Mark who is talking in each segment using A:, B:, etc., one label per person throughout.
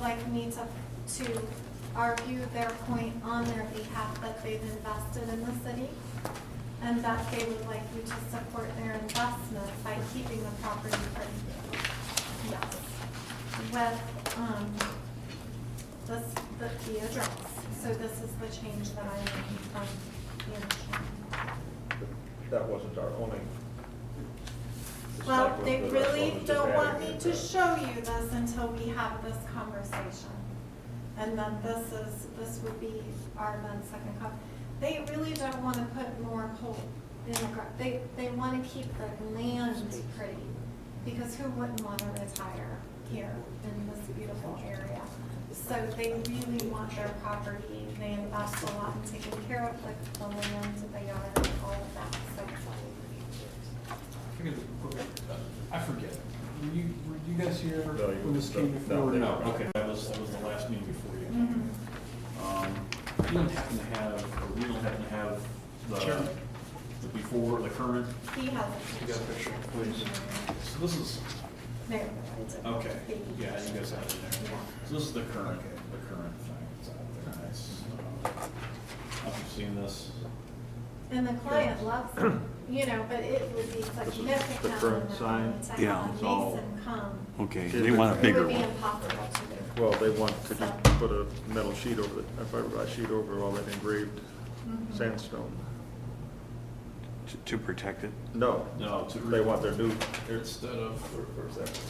A: like me to, to argue their point on their behalf that they've invested in the city and that they would like you to support their investment by keeping the property for you. Yes. With, um, this, the, the address. So this is the change that I made from the initial.
B: That wasn't our only.
A: Well, they
B: That's what
A: really
B: was just
A: don't want
B: added
A: me
B: to
A: to
B: that.
A: show you this until we have this conversation. And then this is, this would be our then second cop. They really don't want to put more coal in the ground. They, they want to keep the land pretty, because who wouldn't want to retire here in this beautiful area? So they really want their property, they invest a lot in taking care of the, the land, the yard, all of that, so.
C: Look at the- look at the- I forget. Were you, were you guys here
B: No, you
C: when this
B: were-
C: came
B: no,
C: before?
B: they were
D: No,
B: not.
D: okay, that was, that was the last meeting before you.
A: Mhm.
D: Um, You don't happen to have, or we don't happen to have the,
C: Sure.
D: the before, the current?
A: He has
D: You got a picture, please? So this is,
A: There.
D: okay, yeah, you guys have it there. So this is the current, the current thing that's out there. It's, uh, I've seen this.
A: And the client loves it, you know, but it would be significant.
B: the current
A: amount
B: sign?
A: of time
E: Yeah,
A: on
E: it's all-
A: Mason "Oh, come.
E: Okay,
B: Give
E: they
B: it
E: want
B: to
E: a
B: me.
A: It
E: bigger
A: would be
E: one.
A: impossible to do.
B: Well, they want to just put a metal sheet over, it, a fiberglass sheet over all that engraved
A: Mhm.
B: sandstone.
E: To- To protect it?
B: No,
D: No, to.
B: they want their new,
D: Here Instead of,
B: where- where's that?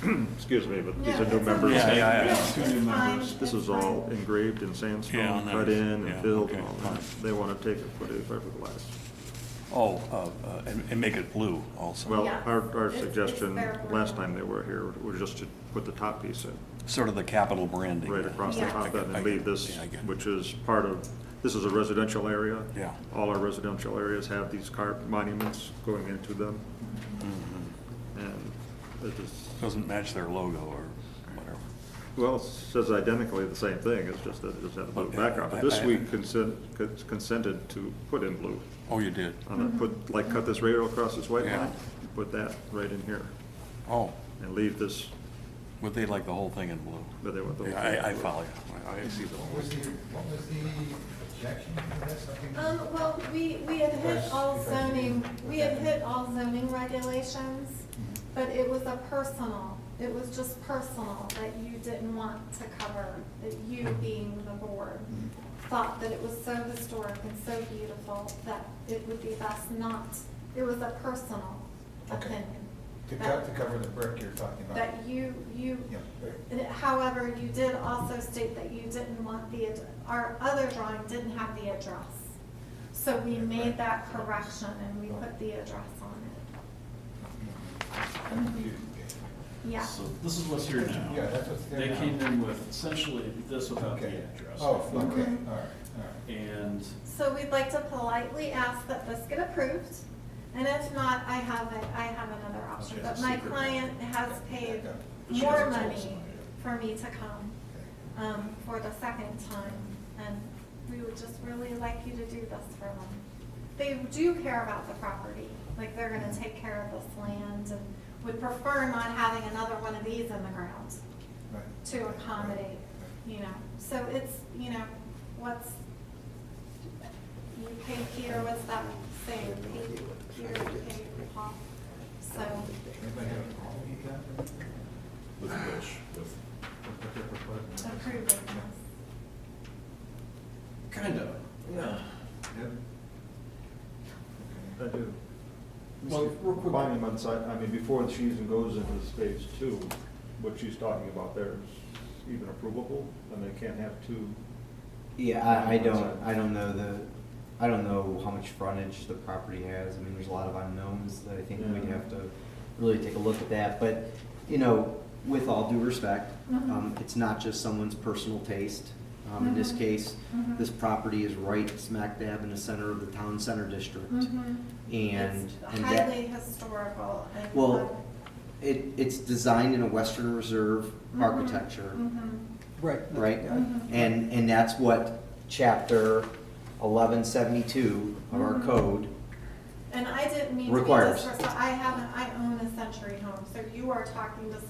B: hmm, Excuse me, but these
A: Yeah,
B: are new
A: it's
B: members.
A: okay.
E: Yeah, yeah, yeah.
A: It's
D: Two new
A: fine,
D: members.
B: This
A: it's
B: is all
A: fine.
B: engraved in
E: Yeah,
B: sandstone,
E: nice.
B: cut in and
E: Yeah,
B: filled and
E: okay,
B: all that.
E: fine.
B: They want to take it for the fiberglass.
E: Oh, uh, uh, and and make it blue also,
B: Well,
A: Yeah.
B: our, our
A: It's- it's
B: suggestion,
A: fair.
B: last time they were here, was just to put the top piece in,
E: sort of the capital branding.
B: right across the
A: Yeah.
B: top
E: I
B: and
E: get-
B: leave this,
E: yeah, I get it.
B: which is part of, this is a residential area.
E: Yeah.
B: All our residential areas have these carved monuments going into them,
A: Mm-hmm.
E: Mhm.
B: and it is,
E: Doesn't match their logo or whatever.
B: well, it says identically the same thing, it's just that it doesn't have a blue
E: Okay,
B: background. But
E: I-
B: this
E: I-
B: we consent, consented to put in blue.
E: Oh, you did?
B: I'm gonna put, like, cut this rail across this white
E: Yeah.
B: line, put that right in here,
E: Oh,
B: and leave this,
E: would they like the whole thing in blue?
B: but they want the.
E: Yeah, I, I follow you. I- I see the
F: What
E: whole.
F: was the, what was the objection to this? I think-
A: Um, well, we, we had hit all zoning, we had hit all zoning regulations, but it was a personal, it was just personal that you didn't want to cover, that you being the board
F: Mm-hmm.
A: thought that it was so historic and so beautiful that it would be best not, it was a personal
F: Okay.
A: opinion.
F: To
A: that-
F: cut, to cover the brick you're talking about.
A: That you, you
F: Yeah.
A: However, you did also state that you didn't want the, ad- our other drawing didn't have the address. So we made that correction and we put the address on it. Yeah.
D: So this is what's here now.
F: Yeah, that's what's there
D: They
F: now.
D: came in with essentially this without the
F: Okay.
D: address.
F: Oh, okay, all right,
A: Mhm.
F: all right.
D: And
A: So we'd like to politely ask that this get approved. And if not, I have it, I have another option. But my client has paid more money for me to come. um, for the second time, and we would just really like you to do this for them. They do care about the property, like they're gonna take care of this land and would prefer not having another one of these in the ground
F: Right.
A: to accommodate, you know. So it's, you know, what's, you pay Peter, what's that saying? Pay Peter, pay Paul. So,
F: Anybody have a problem with that?
D: with which, with,
F: With what they're proposing?
A: approving this.
D: kind of. Yeah.
F: Yep.
B: I do.
D: Well, real quick-
B: Monuments, I, I mean, before she even goes into stage two, what she's talking about there is even approvable, and they can't have two.
G: Yeah, I, I don't, I don't know the, I don't know how much frontage the property has. I mean, there's a lot of unknowns that I think we'd
B: Yeah.
G: have to really take a look at that. But, you know, with all due respect, um,
A: Mhm.
G: it's not just someone's personal taste. Um, in this
A: Mhm.
G: case,
A: Mhm.
G: this property is right smack dab in the center of the town center district.
A: Mm-hmm.
G: And,
A: It's
G: and that,
A: highly historical and.
G: well, it, it's designed in a Western Reserve
A: Mhm.
G: architecture.
A: Mhm.
H: Right.
G: right?
A: Mhm.
G: And, and that's what chapter eleven seventy-two of our
A: Mhm.
G: code,
A: And I didn't mean to be
G: Requires.
A: disrespectful, I haven't, I own a century home, so you are talking to